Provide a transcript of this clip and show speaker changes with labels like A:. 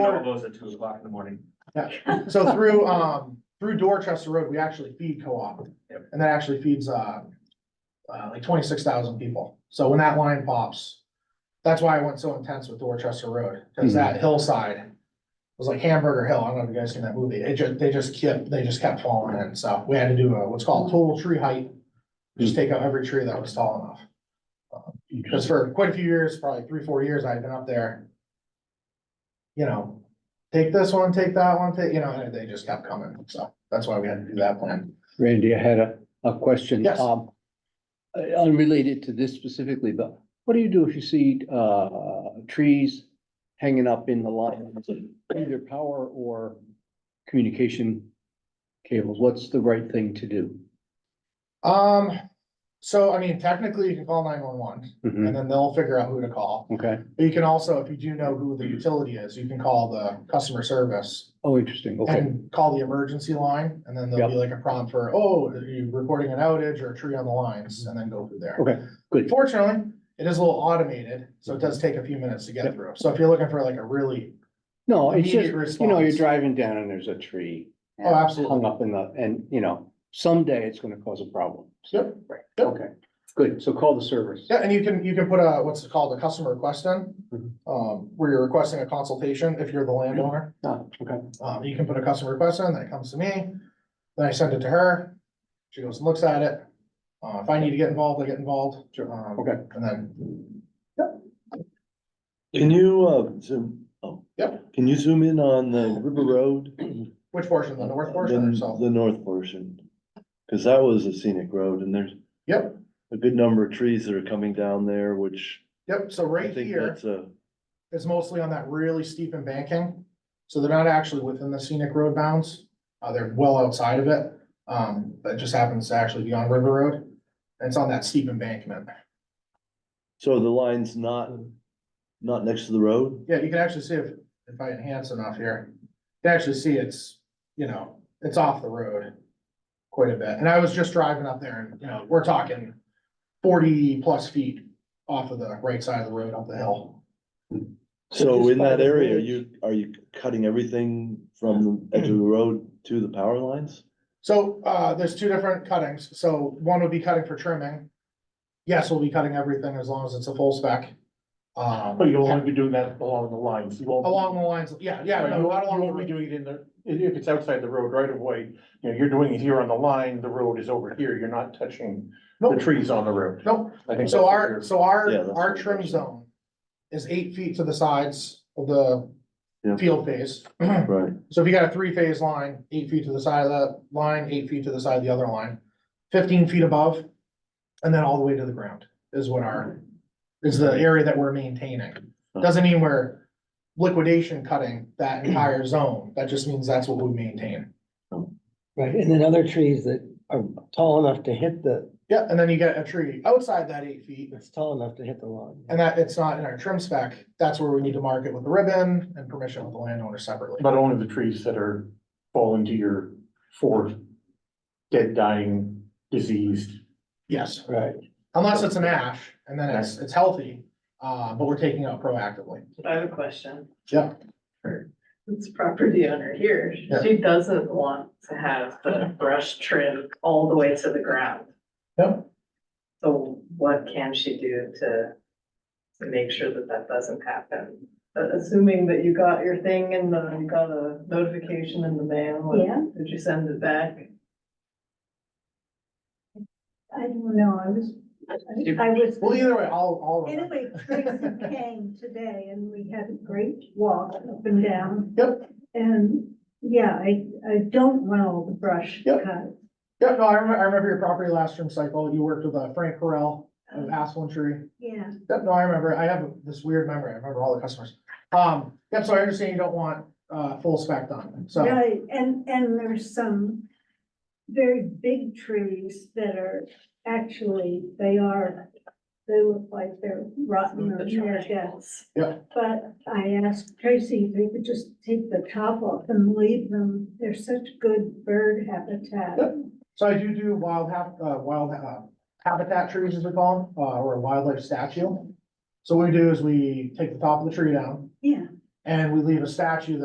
A: Bonobos at two o'clock in the morning.
B: So through, um, through Dorchester Road, we actually feed co-op,
A: Yep.
B: and that actually feeds, uh, uh, like twenty-six thousand people. So when that line pops, that's why I went so intense with Dorchester Road, because that hillside was like Hamburger Hill. I don't know if you guys seen that movie. It just, they just kept, they just kept falling in. So we had to do a, what's called total tree height. Just take out every tree that was tall enough. Because for quite a few years, probably three, four years, I've been up there. You know, take this one, take that one, take, you know, and they just kept coming, so that's why we had to do that plan.
C: Randy, I had a, a question.
B: Yes.
C: um, uh, Unrelated to this specifically, but what do you do if you see, uh, trees hanging up in the line? Either power or communication cables, what's the right thing to do?
B: Um, so I mean, technically you can call nine one one
C: Mhm,
B: and then they'll figure out who to call.
C: Okay,
B: But you can also, if you do know who the utility is, you can call the customer service
C: oh, interesting, okay,
B: and call the emergency line. And then there'll be like a prompt for, oh, are you reporting an outage or a tree on the lines? And then go through there.
C: okay, good,
B: Fortunately, it is a little automated, so it does take a few minutes to get
C: Yep.
B: through. So if you're looking for like a really,
C: no, it's
B: Immediate
C: just, you know, you're
B: response.
C: driving down and there's a tree.
B: oh, absolutely.
C: Hung up in the, and, you know, someday it's gonna cause a problem.
B: Yep. Yep.
C: Okay, good, so call the service.
B: Yeah, and you can, you can put a, what's it called, a customer request in,
C: Mhm.
D: Mm-hmm.
B: um, where you're requesting a consultation if you're the landowner.
C: Ah, okay.
B: Um, you can put a customer request in, then it comes to me, then I send it to her, she goes and looks at it. Uh, if I need to get involved, I get involved.
C: Sure.
B: Um,
C: Okay.
B: And then,
D: Can you, uh, zoom, oh.
B: Yep.
D: Can you zoom in on the River Road?
B: which portion, the north
D: The-
B: portion or south?
D: The north portion, cause that was a scenic road and there's
B: Yep,
D: a good number of trees that are coming down there, which
B: yep, so
D: I
B: right
D: think
B: here.
D: that's a,
B: is mostly on that really steep embankment. So they're not actually within the scenic road bounds. Uh, they're well outside of it. Um, that just happens to actually be on River Road. And It's on that steep embankment.
D: so the line's not, not next to the road?
B: Yeah, you can actually see if, if I enhance enough here, you can actually see it's, you know, it's off the road quite a bit. And I was just driving up there and, you know, we're talking forty plus feet off of the right side of the road up the hill.
D: So
C: just
D: in
C: by
D: that
C: the
D: area,
C: bridge.
D: you, are you cutting everything from the edge of the road to the power lines?
B: So, uh, there's two different cuttings, so one would be cutting for trimming. Yes, we'll be cutting everything as long as it's a full spec.
E: But
B: Um,
E: you'll only be doing that along the lines, you won't.
B: along the lines, yeah, yeah,
E: You
B: no, not along
E: won't be
B: the-
E: doing it in the, if if it's outside the road right of way, you know, you're doing it here on the line, the road is over here, you're not touching the
B: Nope.
E: trees on the road.
B: nope,
E: I think
B: so
E: that's what
B: our,
E: you're-
B: so
D: Yeah,
B: our,
D: that's
B: our
D: what it
B: trim
D: is.
B: zone is eight feet to the sides of the
D: Yeah.
B: field phase.
D: Right.
B: So if you got a three phase line, eight feet to the side of that line, eight feet to the side of the other line, fifteen feet above. And then all the way to the ground is what our, is the area that we're maintaining. Doesn't mean we're liquidation cutting that entire zone. That just means that's what we maintain.
F: Right, and then other trees that are tall enough to hit the,
B: Yeah, and then you get a tree outside that eight feet
F: it's tall enough to hit the lawn.
B: and that it's not in our trim spec. That's where we need to mark it with a ribbon and permission with the landowner separately.
E: But only the trees that are falling to your fourth dead, dying, diseased.
B: Yes,
F: Right,
B: unless it's an ash and then it's, it's healthy, uh, but we're taking out proactively.
G: I have a question.
B: Yeah.
G: This property owner here,
B: Yeah.
G: she doesn't want to have the brush trimmed all the way to the ground.
B: Yeah.
G: So what can she do to, to make sure that that doesn't happen? But assuming that you got your thing and uh, you got a notification in the mail,
H: Yeah.
G: and did you send it back?
H: I don't know, I was, I was.
B: Well, either way, I'll, I'll. remember.
H: Anyway, Tracy came today and we had a great walk up and down.
B: Yep.
H: And, yeah, I, I don't want all the brush
B: Yep.
H: cut.
B: Yeah, no, I remember, I remember your property last term cycle. You worked with uh, Frank Correll of
H: Mm-hmm.
B: Aspen Tree.
H: Um, Yeah,
B: Yep, no, I remember. I have this weird memory. I remember all the customers. Um, yep, so I understand you don't want, uh, full spec done, so.
H: right, and, and there's some very big trees that are, actually, they are, they look like they're rotten or
G: The
H: near death.
G: triangles.
H: But I asked Tracy if we could just take the top off and leave them. They're such good bird habitat.
B: So I do do wild hap, uh, wild, uh, habitat trees as we call them, uh, or a wildlife statue. So what we do is we take the top of the tree down,
H: Yeah,
B: And we leave a statue